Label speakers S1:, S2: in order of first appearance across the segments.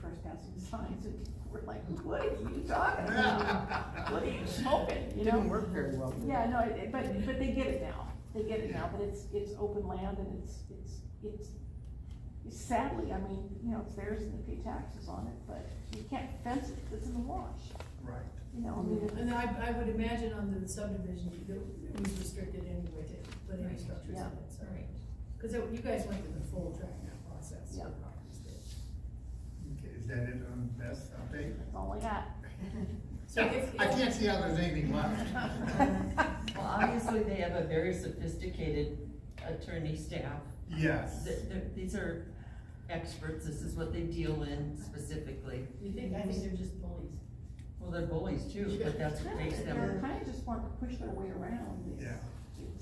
S1: first got some signs and people were like, what are you talking about? What are you smoking, you know?
S2: Didn't work very well. did it?
S1: Yeah, no, it- but, but they get it now, they get it now, but it's, it's open land and it's, it's, it's, sadly, I mean, you know, it's theirs and they pay taxes on it, but you can't fence it, 'cause it's in the wash,
S3: Right.
S1: you know, I mean,
S4: Mm-hmm.
S5: And I, I would imagine on the subdivision, you go- it was restricted anyway to linear
S4: Right.
S5: structures
S1: Yeah.
S5: and it, so. Cause it- you guys went through the full dragon out process. for
S1: Yeah.
S5: properties there.
S3: Okay, is that it on best update?
S1: that's all I got.
S5: So if.
S3: I can't see how there's anything left.
S4: Well, obviously, they have a very sophisticated attorney staff.
S3: Yes.
S4: Th- th- These are experts, this is what they deal in specifically.
S5: You think, I think they're just bullies.
S4: Well, they're bullies too, but that's what makes
S1: They're
S4: them,
S1: kind of just want to push their way around. It's-
S3: Yeah.
S1: it's-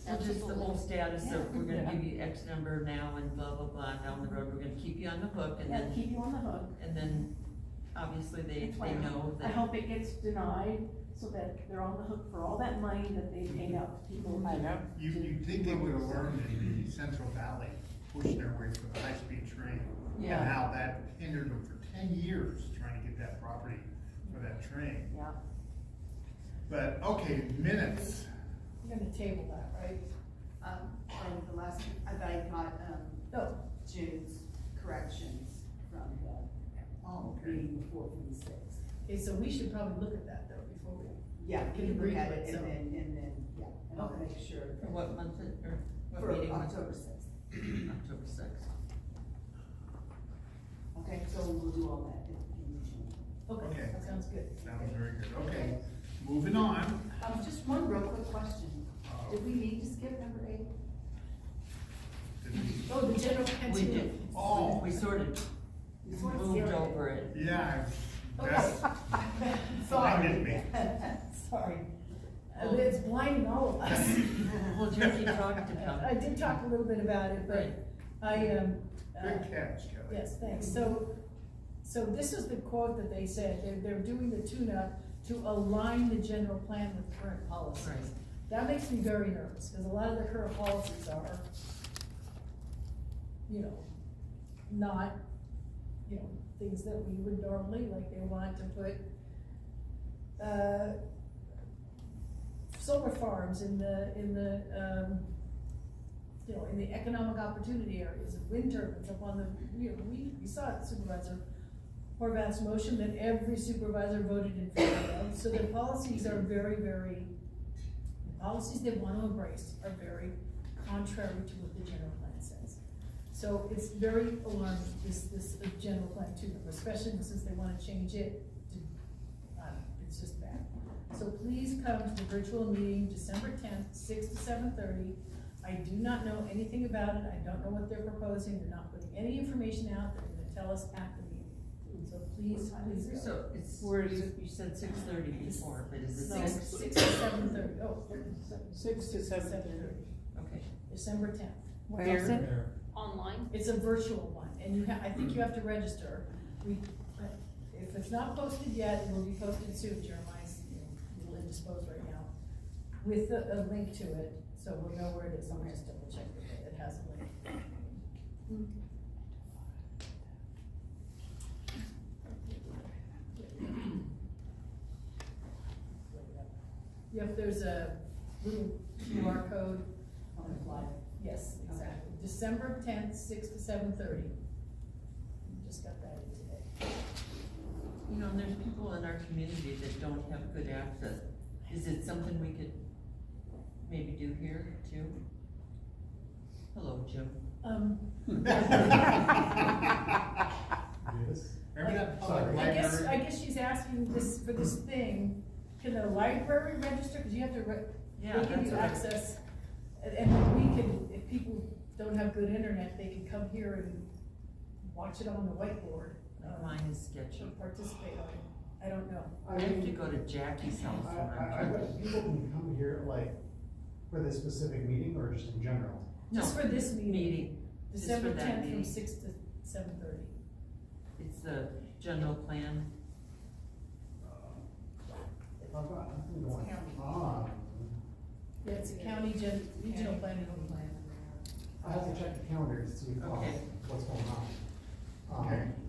S4: well, just the whole status of, we're gonna give you X number now and blah, blah, blah, and down the road, we're gonna keep you on the hook, and
S1: Yeah,
S4: then,
S1: keep you on the hook.
S4: and then, obviously, they,
S1: That's why
S4: they know
S1: I
S4: that.
S1: hope it gets denied so that they're on the hook for all that money that they paid out to people.
S2: Mm-hmm. I know.
S3: You, you think they would have learned in the Central Valley, pushing their way for the high-speed train?
S4: Yeah.
S3: And how that hindered them for ten years trying to get that property for that train.
S1: Yeah.
S3: But, okay, minutes.
S5: You're gonna table that, right?
S6: Um, from the last, I thought I caught, um,
S5: No,
S6: June's corrections from the
S3: Oh, okay.
S6: meeting before from the sixth.
S5: okay, so we should probably look at that though before we.
S6: Yeah,
S5: You
S6: we
S5: can
S6: can
S5: bring
S6: look at
S5: it,
S6: it and
S5: so.
S6: then, and then, yeah, and I'll make sure
S4: For what month, it- or
S6: for
S4: what meeting? was it?
S6: October sixth.
S4: October sixth.
S6: Okay, so we'll do all that in in June.
S3: Okay.
S5: Okay, that sounds good.
S3: Sounds very good. Okay, moving on.
S6: Um, just one real quick question.
S3: Uh,
S6: Did we need to skip number eight?
S3: did we-
S5: Oh, the general
S4: We
S5: continue.
S4: did,
S3: Oh.
S4: we sort of
S6: We sort of
S4: moved
S6: zeroed it.
S4: over it.
S3: Yeah, that's, Blinded me.
S6: Sorry. Sorry.
S5: Uh, It's blinding all of us.
S4: Well, Jackie talked about
S5: I did talk a little bit about it, but
S4: Right.
S5: I, um. uh,
S3: good catch, Kelly.
S5: Yes, thanks. So, so this is the quote that they said, they're, they're doing the tune-up to align the general plan with current
S4: Right.
S5: policies. That makes me very nervous, because a lot of the current policies are, you know, not, you know, things that we would normally, like they want to put, uh, solar farms in the, in the, um, you know, in the economic opportunity areas, and wind turbines up on the, you know, we, we saw it Supervisor Horvath's motion that every supervisor voted in favor of, so their policies are very, very, the policies they want to embrace are very contrary to what the general plan says. So it's very alarming, this, this uh, general plan too, especially since they wanna change it to, uh, it's just bad. So please come to the virtual meeting December tenth, six to seven thirty. I do not know anything about it, I don't know what they're proposing, they're not putting any information out, they're gonna tell us at the meeting. So please, please go.
S4: So it's,
S2: Where is
S4: you said six thirty before, but is it
S5: Six, six
S4: six?
S5: to seven thirty. Oh,
S2: Six to seven thirty.
S4: Okay.
S5: December tenth.
S2: Where?
S7: online.
S5: It's a virtual one, and you have, I think you have to register. We, if it's not posted yet, it will be posted soon, Jeremiah's, you know, a little indisposed right now, with a, a link to it, so we'll know where it is, I'll just double check that it has a link.
S1: Mm-hmm.
S5: Yep, there's a little QR code
S6: On the fly.
S5: Yes, exactly. December tenth, six to seven thirty. Just got that in today.
S4: You know, and there's people in our community that don't have good access. Is it something we could maybe do here too? Hello, Jim.
S5: Um,
S8: Yes.
S3: Remember that public
S5: I guess, I
S3: library?
S5: guess she's asking this, for this thing, can the library register, cause you have to re- they
S4: Yeah,
S5: give
S4: that's
S5: you
S4: what I-
S5: access. And, and we can, if people don't have good internet, they can come here and watch it on the whiteboard.
S4: Like,
S5: um,
S4: Mine is sketchy.
S5: And participate on it. I don't know.
S4: I have to go to Jackie's house
S8: I,
S4: when
S8: I, I
S4: I'm
S8: bet people can come here like for this specific meeting or just in general.
S4: No,
S5: Just for this meeting,
S4: meeting. just for
S5: December
S4: that
S5: tenth
S4: meeting.
S5: from six to seven thirty.
S4: It's the general plan.
S8: If I've got nothing going on,
S5: Yeah, it's a county gen, regional planning.
S8: I have to check the calendar to see uh,
S4: Okay.
S8: what's going on. Um,
S3: Okay.